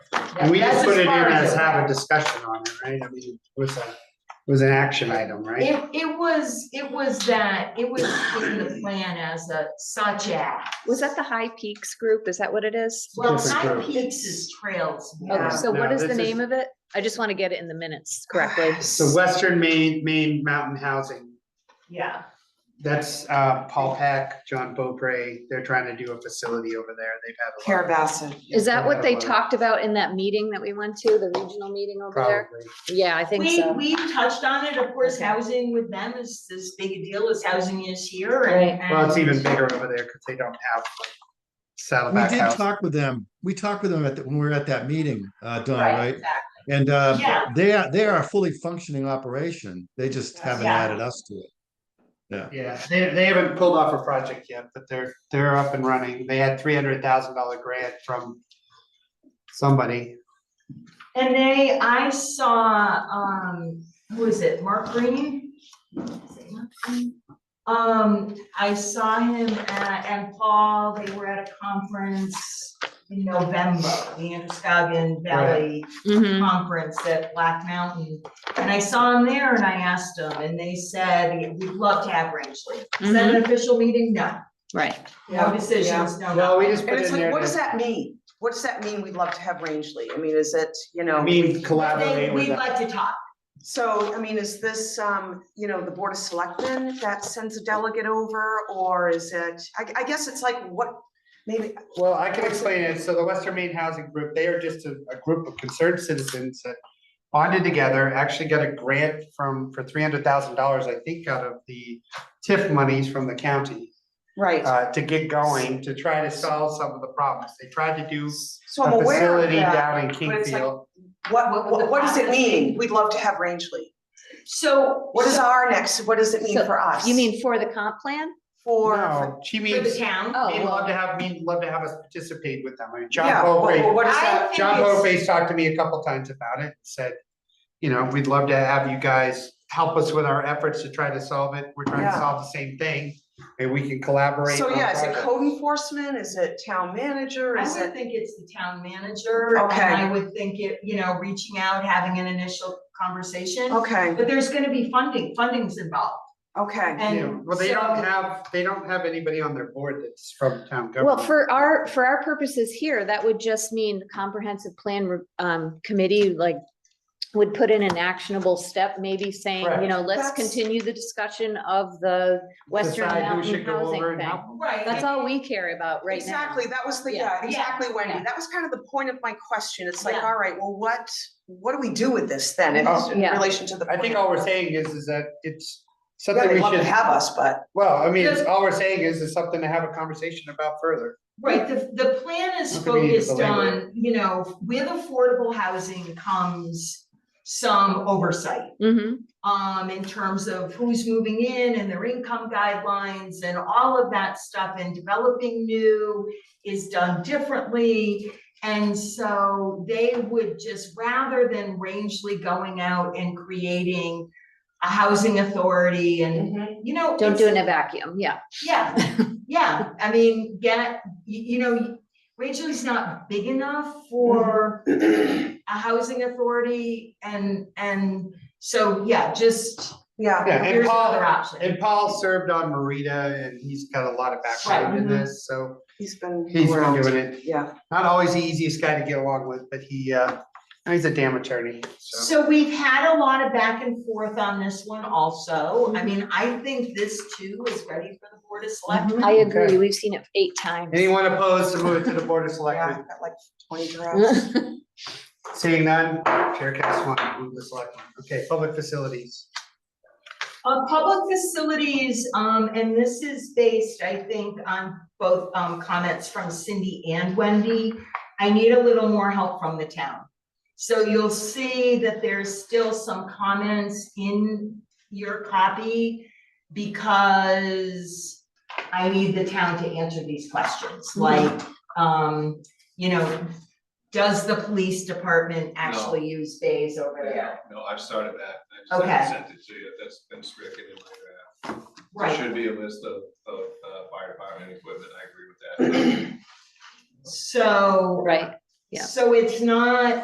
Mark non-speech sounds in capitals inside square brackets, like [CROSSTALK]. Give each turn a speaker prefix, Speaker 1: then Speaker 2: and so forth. Speaker 1: And we
Speaker 2: That's
Speaker 1: just put it
Speaker 2: as
Speaker 1: in
Speaker 2: far as
Speaker 1: as
Speaker 2: it
Speaker 1: have a
Speaker 2: went.
Speaker 1: discussion on it, right? I mean, it was a, it was an action item, right?
Speaker 2: It, it was, it was that, it was in the plan as a such as.
Speaker 3: Was that the High Peaks group? Is that what it is?
Speaker 2: Well,
Speaker 1: Different
Speaker 2: High
Speaker 1: group.
Speaker 2: Peaks is trails
Speaker 3: Okay,
Speaker 2: now.
Speaker 3: Oh, so what
Speaker 1: no,
Speaker 3: is the
Speaker 1: this
Speaker 3: name
Speaker 1: is-
Speaker 3: of it? I just want to get it in the [SIGHS] minutes correctly.
Speaker 1: The Western Maine, Maine Mountain Housing,
Speaker 2: Yeah,
Speaker 1: that's uh, Paul Peck, John Beaupre, they're trying to do a facility over there. They've had a lot. of-
Speaker 4: Carabasset.
Speaker 3: Is that what they
Speaker 1: Whatever.
Speaker 3: talked about in that meeting that we went to, the regional meeting over there?
Speaker 1: Probably.
Speaker 3: Yeah, I think
Speaker 2: we,
Speaker 3: so.
Speaker 2: we touched on it, of course,
Speaker 3: Okay.
Speaker 2: housing with them is as big a deal as housing is here
Speaker 3: Right.
Speaker 2: and.
Speaker 1: Well, it's
Speaker 2: and-
Speaker 1: even bigger over there because they don't have like
Speaker 5: We
Speaker 1: Saddleback
Speaker 5: did
Speaker 1: House.
Speaker 5: talk with them. We talked with them at, the- when we were at that meeting, uh, Don, right?
Speaker 2: exactly.
Speaker 5: And, uh,
Speaker 2: Yeah.
Speaker 5: they are, they are a fully functioning operation. They just haven't
Speaker 2: Yeah.
Speaker 5: added us to it.
Speaker 1: Yeah, they, they haven't pulled off a project yet, but they're, they're up and running. They had three hundred thousand dollar grant from somebody.
Speaker 2: And they, I saw, um, who is it, Mark Green? Is it Mark Green? Um, I saw him at, and Paul, they were at a conference in November, the Androscoggin Valley
Speaker 3: Mhm.
Speaker 2: Conference at Black Mountain. And I saw him there and I asked him, and they said, we'd love to have Rangeley. Is that an official meeting? No,
Speaker 3: Right.
Speaker 2: no
Speaker 4: Yeah, yeah.
Speaker 2: decisions, no.
Speaker 1: No, we just put
Speaker 4: And it's
Speaker 1: in
Speaker 4: like,
Speaker 1: there.
Speaker 4: what does
Speaker 1: to-
Speaker 4: that mean? What does that mean? We'd love to have Rangeley. I mean, is it, you
Speaker 1: I
Speaker 4: know?
Speaker 1: mean,
Speaker 2: They-
Speaker 1: collaborate with
Speaker 2: We'd
Speaker 1: them.
Speaker 2: like to talk.
Speaker 4: So, I mean, is this, um, you know, the Board of Selectmen that sends a delegate over, or is it, I, I guess it's like, what, maybe,
Speaker 1: Well, I can explain it. So the Western Maine Housing Group, they are just a, a group of concerned citizens that bonded together, actually got a grant from, for three hundred thousand dollars, I think, out of the TIF monies from the county
Speaker 4: right,
Speaker 1: uh, to get going, to try to solve some of the problems. They tried to do
Speaker 4: so I'm
Speaker 1: a
Speaker 4: aware of
Speaker 1: facility
Speaker 4: that.
Speaker 1: down in
Speaker 4: but it's like-
Speaker 1: Kingfield.
Speaker 4: What, what, what does it mean? We'd love to have Rangeley.
Speaker 2: So.
Speaker 4: What is our next, what does it mean
Speaker 3: So,
Speaker 4: for us?
Speaker 3: You mean for the comp plan?
Speaker 4: For,
Speaker 1: No, she
Speaker 2: For the
Speaker 1: means,
Speaker 2: town.
Speaker 3: Oh,
Speaker 1: we'd love
Speaker 3: well,
Speaker 1: to have, we'd love to have us participate with them. I mean, John
Speaker 4: yeah, what,
Speaker 1: Beaupre,
Speaker 4: what is
Speaker 2: I
Speaker 4: that?
Speaker 2: think
Speaker 1: John
Speaker 2: it's-
Speaker 1: Beaupre's talked to me a couple times about it, said, you know, we'd love to have you guys help us with our efforts to try to solve it. We're trying to
Speaker 4: Yeah.
Speaker 1: solve the same thing, and we can collaborate.
Speaker 4: So
Speaker 1: on
Speaker 4: yeah, is it
Speaker 1: projects.
Speaker 4: code enforcement? Is it town manager?
Speaker 2: I
Speaker 4: Is
Speaker 2: would
Speaker 4: it?
Speaker 2: think it's the town manager. and
Speaker 4: Okay.
Speaker 2: I would think it, you know, reaching out, having an initial conversation,
Speaker 4: Okay,
Speaker 2: but there's gonna be funding, funding's involved.
Speaker 4: okay.
Speaker 1: Yeah,
Speaker 2: And
Speaker 1: well, they
Speaker 2: so-
Speaker 1: don't have, they don't have anybody on their board that's from town
Speaker 3: Well,
Speaker 1: government.
Speaker 3: for our, for our purposes here, that would just mean the comprehensive plan re- um committee, like, would put in an actionable step, maybe saying, you know, let's
Speaker 4: That's-
Speaker 3: continue the discussion of the Western
Speaker 1: Decide who
Speaker 3: Mountain
Speaker 1: should go
Speaker 3: housing
Speaker 1: over and
Speaker 3: thing.
Speaker 1: help them.
Speaker 2: Right.
Speaker 3: That's all we care about right now.
Speaker 4: Exactly, that was the,
Speaker 3: Yeah.
Speaker 4: yeah, exactly,
Speaker 3: Yeah.
Speaker 4: Wendy. That was kind of the point of my question. It's like,
Speaker 2: Yeah.
Speaker 4: all right, well, what, what do we do with this then in
Speaker 1: Oh.
Speaker 4: in
Speaker 3: Yeah.
Speaker 4: relation to the?
Speaker 1: I think
Speaker 4: plan?
Speaker 1: all we're saying is, is that it's
Speaker 4: Yeah,
Speaker 1: something
Speaker 4: they'd
Speaker 1: we
Speaker 4: love to
Speaker 1: should,
Speaker 4: have us, but.
Speaker 1: well, I mean, it's-
Speaker 2: Just-
Speaker 1: all we're saying is, is something to have a conversation about further.
Speaker 2: Right, the, the plan is
Speaker 1: Not that we need to
Speaker 2: focused
Speaker 1: belabor
Speaker 2: on, you know, with affordable housing comes some oversight.
Speaker 3: hmm
Speaker 1: Mm-hmm.
Speaker 2: um, in terms of who's moving in and their income guidelines and all of that stuff and developing new is done differently. And so they would just, rather than Rangeley going out and creating a housing authority and,
Speaker 3: Mm-hmm.
Speaker 2: you know.
Speaker 3: Don't do it
Speaker 2: it's-
Speaker 3: in a vacuum, yeah. [LAUGHS]
Speaker 2: Yeah, yeah, I mean, get, you, you know, Rangeley's not big enough for
Speaker 3: Mm-hmm.
Speaker 2: a housing authority and, and so, yeah, just
Speaker 4: Yeah,
Speaker 1: Yeah, and
Speaker 2: Here's another
Speaker 1: Paul,
Speaker 2: option.
Speaker 1: and Paul served on Marita, and he's got a lot of background in
Speaker 4: mhm.
Speaker 1: this, so
Speaker 4: he's been.
Speaker 1: he's been
Speaker 4: around.
Speaker 1: doing it.
Speaker 4: Yeah,
Speaker 1: Not always the easiest guy to get along with, but he, uh, he's a damn attorney, so.
Speaker 2: So we've had a lot of back and forth on this one also. I mean, I think this too is ready for the board of selectmen.
Speaker 3: I
Speaker 1: Okay.
Speaker 3: agree, we've seen it eight times. [LAUGHS]
Speaker 1: Anyone opposed to move it to the Board of
Speaker 4: yeah,
Speaker 1: Selectmen?
Speaker 4: got like twenty drafts.
Speaker 1: Seeing none, Chair cast one, move the selectmen. Okay, public facilities.
Speaker 2: Uh, public facilities, um, and this is based, I think, on both, um, comments from Cindy and Wendy. I need a little more help from the town. So you'll see that there's still some comments in your copy because I need the town to answer these questions, like, um, you know, does the police department actually use bays over there?
Speaker 6: No, I've started that. I just haven't sent it to you. That's been stricken in my draft.
Speaker 2: Right.
Speaker 6: There should be a list of, of, uh, fire department equipment. I agree with that.
Speaker 2: So.
Speaker 3: Right. Yeah.
Speaker 2: So it's not,